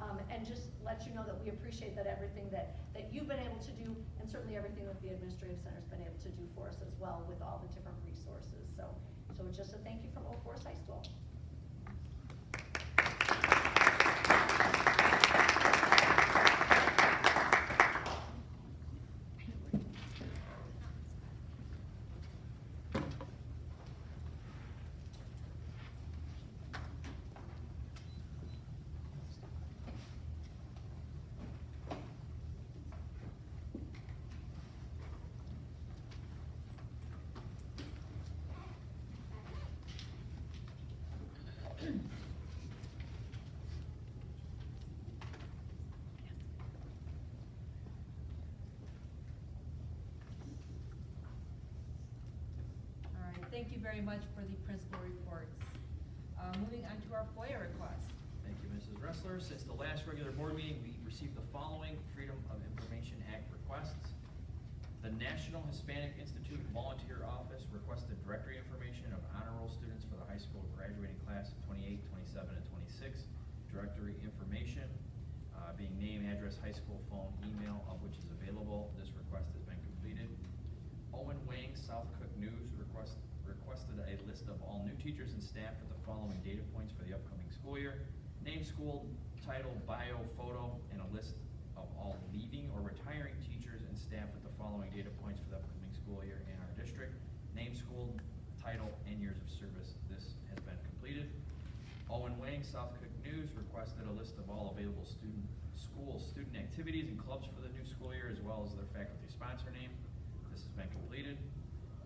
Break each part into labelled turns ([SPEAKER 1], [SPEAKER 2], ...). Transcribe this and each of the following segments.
[SPEAKER 1] um, let you know that we appreciate that everything that, that you've been able to do, and certainly everything that the administrative center's been able to do for us as well with all the different resources. So, so just a thank you from Old Forest High School.
[SPEAKER 2] All right, thank you very much for the principal reports. Uh, moving on to our FOIA request.
[SPEAKER 3] Thank you, Mrs. Wrestler. Since the last regular board meeting, we received the following Freedom of Information Act requests. The National Hispanic Institute Volunteer Office requested directory information of honor roll students for the high school graduating class of 28, 27, and twenty-six. Directory information, uh, being name, address, high school, phone, email, of which is available. This request has been completed. Owen Wang, South Cook News, request, requested a list of all new teachers and staff with the following data points for the upcoming school year. Name, school, title, bio, photo, and a list of all leaving or retiring teachers and staff with the following data points for the upcoming school year in our district. Name, school, title, and years of service. This has been completed. Owen Wang, South Cook News, requested a list of all available student, school student activities and clubs for the new school year, as well as their faculty sponsor name. This has been completed.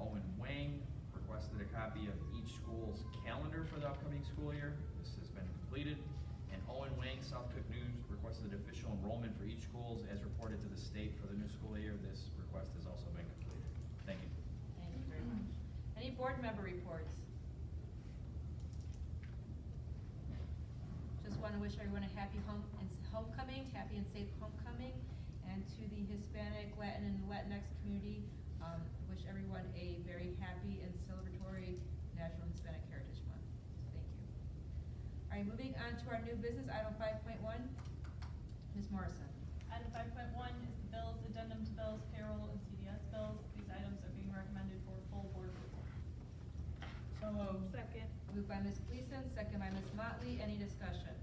[SPEAKER 3] Owen Wang requested a copy of each school's calendar for the upcoming school year. This has been completed. And Owen Wang, South Cook News, requested official enrollment for each schools as reported to the state for the new school year. This request has also been completed. Thank you.
[SPEAKER 2] Thank you very much. Any board member reports? Just want to wish everyone a happy home, and s- homecoming, happy and safe homecoming, and to the Hispanic, Latin, and Latinx community, um, wish everyone a very happy and celebratory National Hispanic Heritage Month. So Thank you. All right, moving on to our new business, item five point one. Ms. Morrison.
[SPEAKER 4] Item five point one is the bills, addendum to bills, payroll, and CDS bills. These items are being recommended for full board approval.
[SPEAKER 5] So moved. Second.
[SPEAKER 2] Moved by Ms. Gleason, second by Ms. Motley. Any discussion?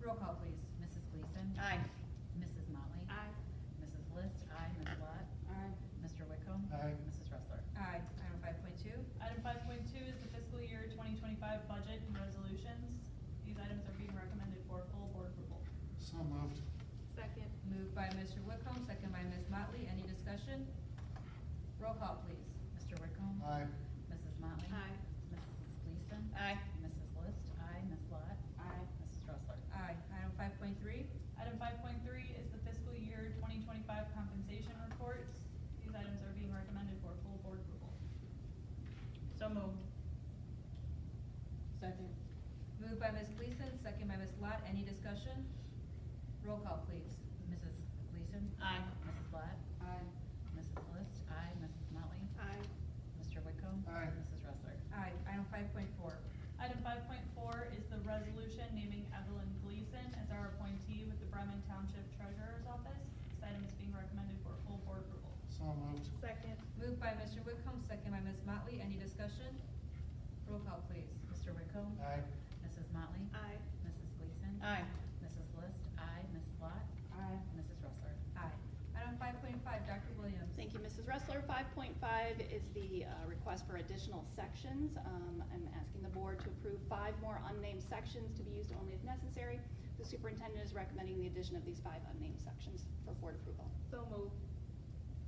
[SPEAKER 2] Roll call, please.
[SPEAKER 6] Mrs. Gleason.
[SPEAKER 5] Aye.
[SPEAKER 6] Mrs. Motley.
[SPEAKER 4] Aye.
[SPEAKER 6] Mrs. List. Aye. Ms. Lot.
[SPEAKER 5] Aye.
[SPEAKER 6] Mr. Wickham.
[SPEAKER 7] Aye.
[SPEAKER 6] Mrs. Wrestler.
[SPEAKER 2] Aye. Item five point two.
[SPEAKER 4] Item five point two is the fiscal year twenty twenty-five budget and resolutions. These items are being recommended for full board approval.
[SPEAKER 7] So moved.
[SPEAKER 5] Second.
[SPEAKER 2] Moved by Mr. Wickham, second by Ms. Motley. Any discussion? Roll call, please.
[SPEAKER 6] Mr. Wickham.
[SPEAKER 7] Aye.
[SPEAKER 6] Mrs. Motley.
[SPEAKER 5] Aye.
[SPEAKER 6] Mrs. Gleason.
[SPEAKER 5] Aye.
[SPEAKER 6] Mrs. List. Aye. Ms. Lot. Aye. Mrs. Wrestler.
[SPEAKER 2] Aye. Item five point three.
[SPEAKER 4] Item five point three is the fiscal year twenty twenty-five compensation reports. These items are being recommended for full board approval.
[SPEAKER 5] So moved. Second.
[SPEAKER 2] Moved by Ms. Gleason, second by Ms. Lot. Any discussion? Roll call, please.
[SPEAKER 6] Mrs. Gleason.
[SPEAKER 5] Aye.
[SPEAKER 6] Mrs. Lot. Aye. Mrs. List. Aye. Mrs. Motley.
[SPEAKER 5] Aye.
[SPEAKER 6] Mr. Wickham.
[SPEAKER 7] Aye.
[SPEAKER 6] Mrs. Wrestler.
[SPEAKER 2] Aye. Item five point four.
[SPEAKER 4] Item five point four is the resolution naming Evelyn Gleason as our appointee with the Bremen Township Treasurer's Office. This item is being recommended for full board approval.
[SPEAKER 7] So moved.
[SPEAKER 5] Second.
[SPEAKER 2] Moved by Mr. Wickham, second by Ms. Motley. Any discussion? Roll call, please.
[SPEAKER 6] Mr. Wickham.
[SPEAKER 7] Aye.
[SPEAKER 6] Mrs. Motley.
[SPEAKER 5] Aye.
[SPEAKER 6] Mrs. Gleason.
[SPEAKER 5] Aye.
[SPEAKER 6] Mrs. List. Aye. Ms. Lot. Aye. Mrs. Wrestler.
[SPEAKER 2] Aye. Item five point five, Dr. Williams.
[SPEAKER 8] Thank you, Mrs. Wrestler. Five point five is the uh, request for additional sections. Um, I'm asking the board to approve five more unnamed sections to be used only if necessary. The superintendent is recommending the addition of these five unnamed sections for board approval.
[SPEAKER 5] So moved.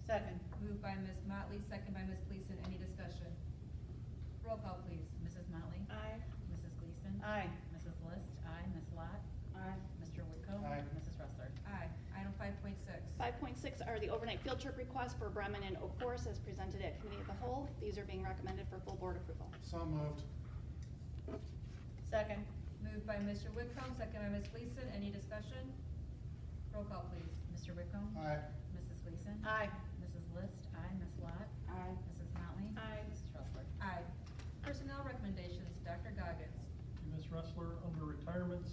[SPEAKER 5] Second.
[SPEAKER 2] Moved by Ms. Motley, second by Ms. Gleason. Any discussion? Roll call, please.
[SPEAKER 6] Mrs. Motley.
[SPEAKER 5] Aye.
[SPEAKER 6] Mrs. Gleason.
[SPEAKER 5] Aye.
[SPEAKER 6] Mrs. List. Aye. Ms. Lot. Aye. Mr. Wickham.
[SPEAKER 7] Aye.
[SPEAKER 6] Mrs. Wrestler.
[SPEAKER 2] Aye. Item five point six.
[SPEAKER 8] Five point six are the overnight field trip requests for Bremen and Oak Forest as presented at committee of the whole. These are being recommended for full board approval.
[SPEAKER 7] So moved.
[SPEAKER 5] Second.
[SPEAKER 2] Moved by Mr. Whitcomb, second by Ms. Gleason. Any discussion? Roll call, please.
[SPEAKER 6] Mr. Wickham.
[SPEAKER 7] Aye.
[SPEAKER 6] Mrs. Gleason.
[SPEAKER 5] Aye.
[SPEAKER 6] Mrs. List. Aye. Ms. Lot. Aye. Mrs. Motley.
[SPEAKER 5] Aye.
[SPEAKER 6] Mrs. Wrestler.
[SPEAKER 2] Aye. Personnel recommendations, Dr. Goggins.
[SPEAKER 9] Ms. Wrestler, under retirements,